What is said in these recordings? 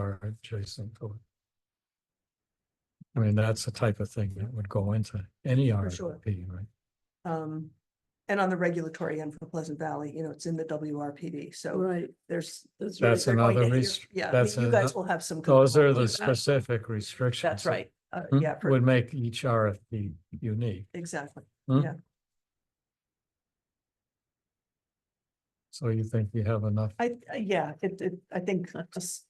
are adjacent to it. I mean, that's the type of thing that would go into any sure. RFP, right? Um, and on the regulatory end for Pleasant Valley, you know, it's in the WRPD, so Right. there's. That's That's they're going another to hear- rest- Yeah, I that's mean, you ano- guys will have some. Those control are the Hmm? over that. specific restrictions. That's that right, uh, m- yeah, for- Would make each RFP unique. exactly. So you think you have enough? I, I- yeah, it, it, I think just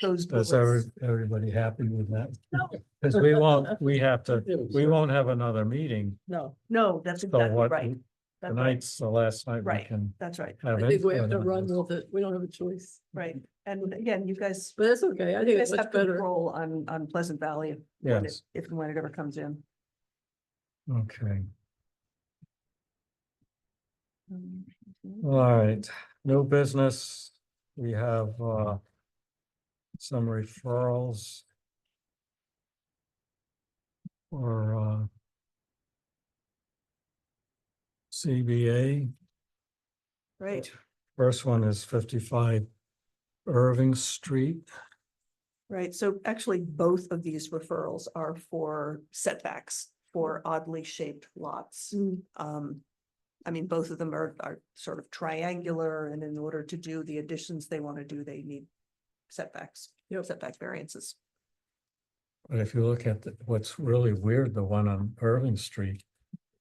those. Is every, bullets. everybody happy with that? No. Because we won't, we have to, We we won't have another meeting. No, No, that's So exactly what, right. That's right. tonight's the last night we Right. can That's right, have. I think we input have to on run this. with it. We don't have a choice, right. And again, you guys, but that's okay. I you think guys it's have much better. control on, on Pleasant Valley. when it- Yes, If and when it ever comes in. okay. All right, no business. We have uh some referrals. Or uh CBA, Right, first one is fifty-five Irving Street. right. So actually, both of these referrals are for setbacks for oddly shaped lots. Mm, Um, I mean, both of them are, are sort of triangular and in order to do the additions they want to do, they need setbacks, Yep. setback variances. But if you look at the- what's really weird, the one on Irving Street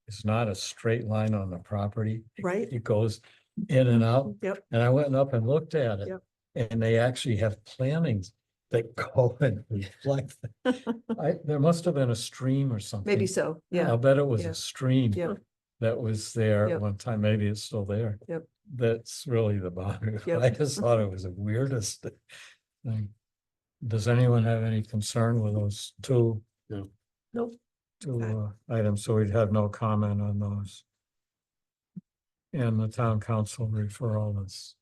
is not a straight line on the property. It- Right. It goes in and out. Yep. And I went up and looked at it. Yep. And they actually have plannings that go and reflect. that. I, there must have been a stream or something. Maybe so, yeah, I'll bet it was yeah, a stream. yep. That was there at Yep. one time. Maybe it's still there. Yep. That's really the boundary. Yep. I just thought it was the weirdest thing. Does anyone have any concern with those two? No. Nope. Two uh, items, so we'd have no comment on those. And the town council referral is.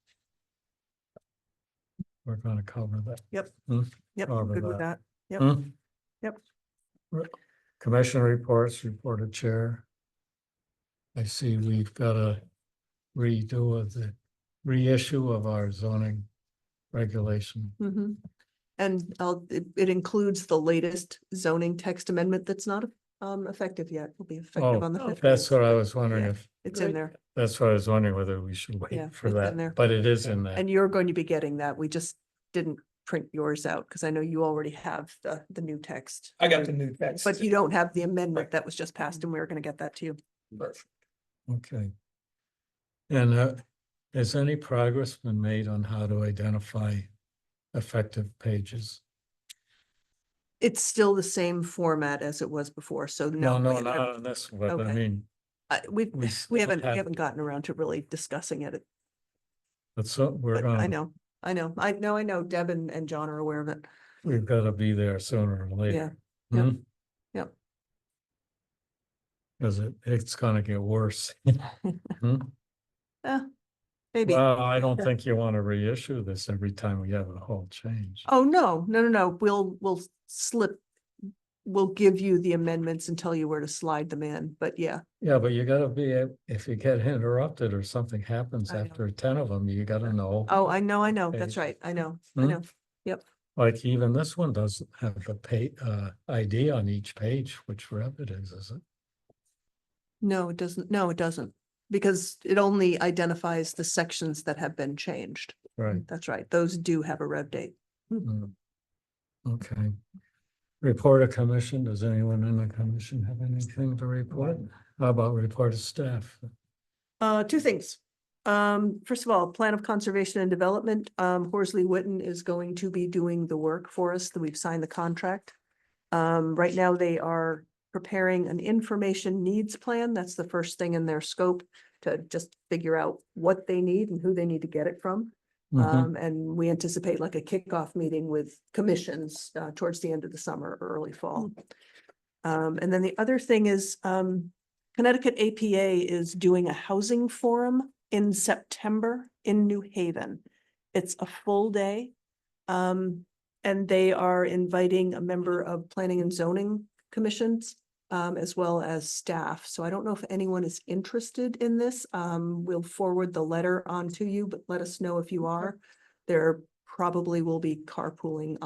We're gonna cover that. yep, I'll I'm go good with back. that. Yep. Hmm? Yep. Re- Commission reports, reported chair. I see we've got a redo of the reissue of our zoning regulation. Mhm. And I'll, it, it includes the latest zoning text amendment that's not um effective yet, will be Oh, effective on the oh, fifteenth. That's what I was wondering Yeah. if, It's in Great. there, that's what I was wondering whether we should Yeah, wait for it's in there. that, but it is in there. and you're going to be getting that, we just didn't print yours out, because I know you already have the, the new text. I got the new text. But you don't have the amendment Right. that was just passed, and we were gonna get that to you. Okay. And uh, has any progress been made on how to identify effective pages? It's still the same format as it was before, so No, no. no, we haven't- not on this, but I Okay. mean, uh, we, we we still haven't, we have- haven't gotten around to really discussing it, But so we're but I gonna, know, I know, I know, I know Deb and, and John are aware of it. we've gotta be there sooner or later. yep, Hmm? yep. Cause it, it's gonna get worse. Hmm? Eh, Maybe. Well, I don't think you wanna reissue this every time we have a whole change. Oh, no, no, no, no, we'll, we'll slip, we'll give you the amendments and tell you where to slide them in, but yeah, Yeah, but you gotta be, a- if you get interrupted or something happens I know. after ten of them, you gotta know. oh, I know, I know, that's Okay. right, I know, I Hmm? know, Like even this one doesn't have the pa- uh, ID on each page, which rep it is, is it? no, it doesn't, no, it doesn't. Because it only identifies the sections that have been changed, Right. that's right, those do have a rev date. Mm. Okay. Report a commission. Does anyone in the commission have anything to report? How about report of staff? Uh, two things. Um, first of all, Plan of Conservation and Development, um, Horsley Witten is going to be doing the work for us that we've signed the contract. Um, right now they are preparing an information needs plan. That's the first thing in their scope to just figure out what they need and who they need to get it from. Mhm. Um, and we anticipate like a kickoff meeting with commissions, uh, towards the end of the summer, or early fall. Um, and then the other thing is, um, Connecticut APA is doing a housing forum in September in New Haven. It's a full day. Um, and they are inviting a member of Planning and Zoning Commissions um, as well as staff. So I don't know if anyone is interested in this. Um, we'll forward the letter on to you, but let us know if you are. They're probably will be carpooling